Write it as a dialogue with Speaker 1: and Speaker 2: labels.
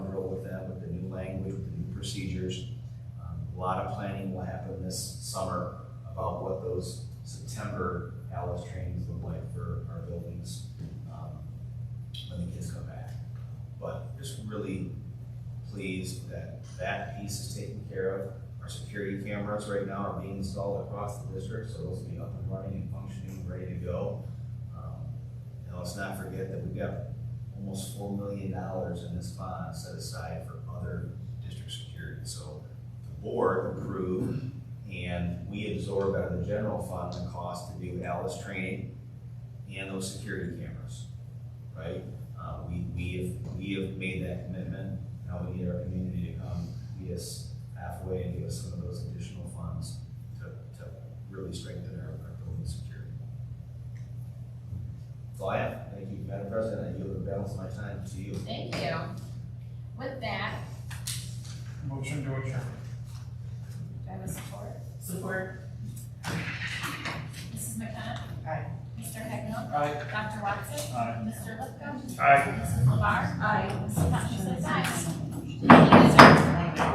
Speaker 1: Um, lot of planning will happen this summer about what those September ALIS trainings look like for our buildings, um, when the kids come back. But just really pleased that that piece is taken care of. Our security cameras right now are being installed across the district, so those will be up and running and functioning, ready to go. Um, And let's not forget that we've got almost four million dollars in this bond set aside for other district security. So the board approved and we absorbed out of the general fund the cost to do Alice training and those security cameras, right? Uh, we, we have, we have made that commitment. Now we need our community to come meet us halfway and give us some of those additional funds to, to really strengthen our, our building security. That's all I have. Thank you, Madam President. I yield the balance of my time to you.
Speaker 2: Thank you. With that,
Speaker 3: Motion to adjourn.
Speaker 2: do I have a support?
Speaker 4: Support.
Speaker 2: Mrs. McConnell?
Speaker 4: Aye.
Speaker 2: Mr. Hagnell?
Speaker 3: Aye.
Speaker 2: Dr. Watson?
Speaker 3: Aye.
Speaker 2: Mr. Lipcomb?
Speaker 3: Aye.
Speaker 2: Mrs. LeBar?
Speaker 4: Aye.
Speaker 2: Mrs. Thompson says aye. Meeting is adjourned.